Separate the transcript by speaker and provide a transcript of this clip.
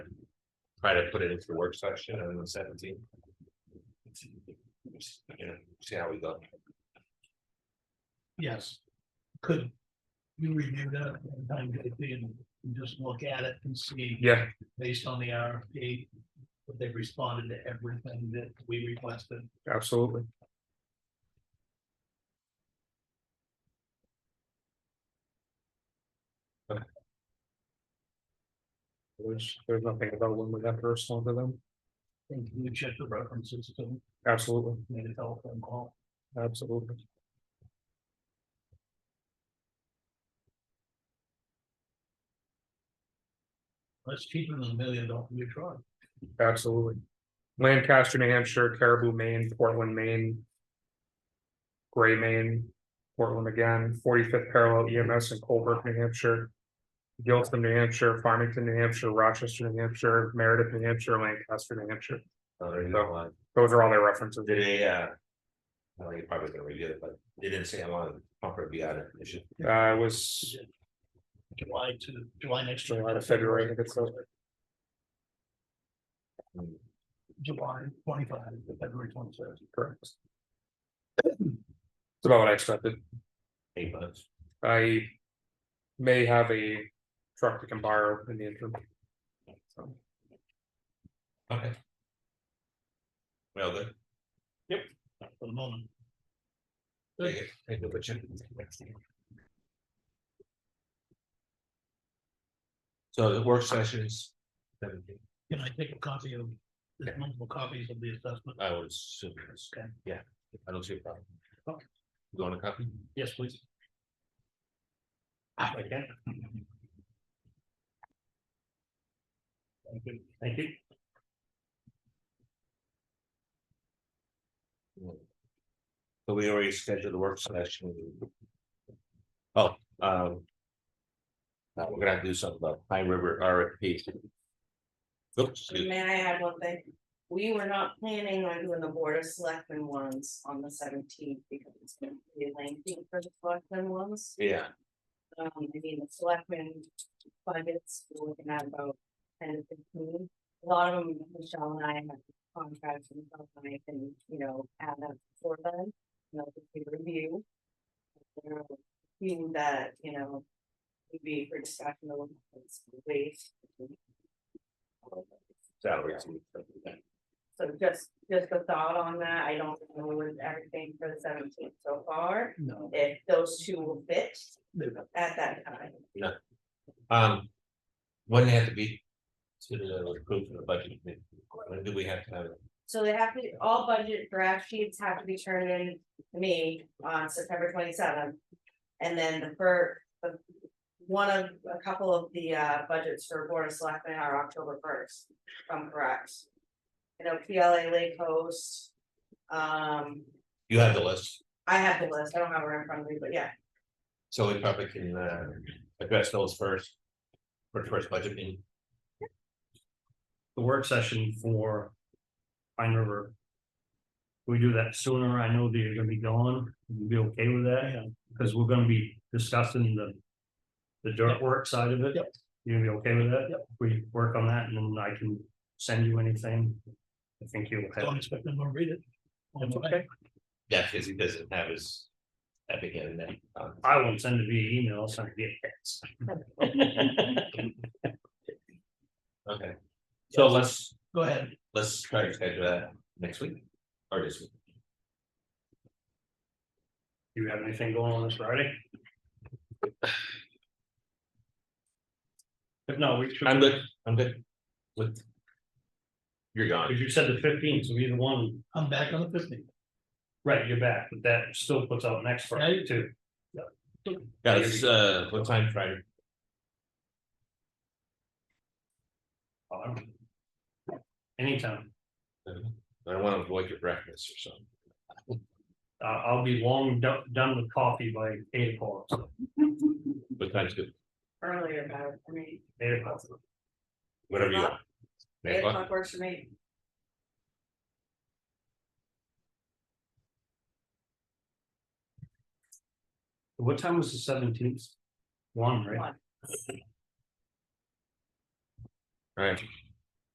Speaker 1: try to put it into the work section and then seventeen. Yeah, see how we go.
Speaker 2: Yes. Could you review that from time to time and just look at it and see,
Speaker 1: Yeah,
Speaker 2: based on the RFP, if they responded to everything that we requested?
Speaker 1: absolutely. Okay. There's, there's nothing about when we have to respond to them,
Speaker 2: And can you check the references to
Speaker 1: absolutely.
Speaker 2: made a telephone call?
Speaker 1: Absolutely.
Speaker 2: That's cheaper than a million dollar new truck.
Speaker 1: Absolutely. Lancaster, New Hampshire, Caribou, Maine, Portland, Maine. Gray, Maine, Portland again, forty-fifth parallel EMS in Colbrook, New Hampshire. Giltham, New Hampshire, Farmington, New Hampshire, Rochester, New Hampshire, Meredith, New Hampshire, Lancaster, New Hampshire.
Speaker 3: Uh,
Speaker 1: So, Those are all their references.
Speaker 3: Did they, uh? I know you're probably gonna review it, but they didn't say how long the pumper would be out of commission.
Speaker 1: Uh, it was
Speaker 2: July to, July next year.
Speaker 1: July to February, I think it's, uh,
Speaker 2: July twenty-five, to February twenty-third.
Speaker 1: correct. It's about what I expected.
Speaker 3: Eight months.
Speaker 1: I may have a truck I can borrow in the interim. So,
Speaker 3: Okay. Well, good.
Speaker 2: For the moment,
Speaker 3: Take it. Take the picture. So the work sessions. seventeen,
Speaker 2: can I take a copy of, there's multiple copies of the assessment?
Speaker 3: I would assume yes.
Speaker 2: Okay.
Speaker 3: Yeah, I don't see a problem.
Speaker 2: Okay.
Speaker 3: You want a copy?
Speaker 2: Yes, please. Ah.
Speaker 3: Okay.
Speaker 2: Thank you. Thank you.
Speaker 3: So we already scheduled the work session. Oh, um. uh, we're gonna have to do something about Pine River RFP. Oops, excuse me.
Speaker 4: May I add one thing? We were not planning on doing the board of selectmen ones on the seventeenth because it's gonna be lengthy for the selectmen ones.
Speaker 3: yeah,
Speaker 4: Um, I mean, the selectmen budgets, we're looking at about ten to fifteen. A lot of them, Michelle and I have contracts and stuff, and I can, you know, add that for them, you know, to peer review. There are Being that, you know, would be for discussion of waste.
Speaker 3: salaries.
Speaker 4: So just, just a thought on that, I don't know with everything for the seventeenth so far,
Speaker 2: No,
Speaker 4: if those two will fit
Speaker 2: they're not.
Speaker 4: at that time.
Speaker 3: Um. Wouldn't it have to be. To the approve of the budget. committee? When do we have to have it?
Speaker 4: So they have to, all budget draft sheets have to be turned in to me on September twenty seventh. And then the first, the, one of, a couple of the uh budgets for board of selectmen are October first, if I'm correct. You know, PLA Lake Coast, um,
Speaker 3: You have the list,
Speaker 4: I have the list, I don't have it in front of me, but yeah,
Speaker 3: so we probably can uh address those first. For the first budget meeting.
Speaker 5: the work session for Pine River. We do that sooner, I know that you're gonna be gone, you'll be okay with that, because we're gonna be discussing the. The dirt work side of it.
Speaker 2: Yep.
Speaker 5: You're gonna be okay with that?
Speaker 2: Yep.
Speaker 5: We work on that and then I can send you anything. I think you'll
Speaker 2: Don't
Speaker 5: have,
Speaker 2: expect them to read it.
Speaker 5: That's okay.
Speaker 3: Yeah, because he doesn't have his. Epic in that. um,
Speaker 5: I won't send it via email, I'll send it via text.
Speaker 3: Okay. So let's,
Speaker 2: Go ahead,
Speaker 3: let's try to schedule that next week or this week.
Speaker 5: Do you have anything going on this Friday? If not, we should.
Speaker 3: I'm good, I'm good. With. You're gone.
Speaker 5: Because you said the fifteenth, so either one.
Speaker 2: I'm back on the fifteenth.
Speaker 5: Right, you're back, but that still puts out next Friday too.
Speaker 3: Yeah, this is, uh, what time Friday?
Speaker 5: Um, Anytime,
Speaker 3: I don't want to avoid your breakfast or something.
Speaker 5: I, I'll be long do- done with coffee by eight o'clock, so
Speaker 3: What time's good?
Speaker 4: earlier about, I mean.
Speaker 5: eight o'clock.
Speaker 3: Whatever you want. Nine
Speaker 4: Eight
Speaker 3: o'clock?
Speaker 4: o'clock works for me.
Speaker 5: What time was the seventeenth? One, right?
Speaker 4: One.
Speaker 3: All right.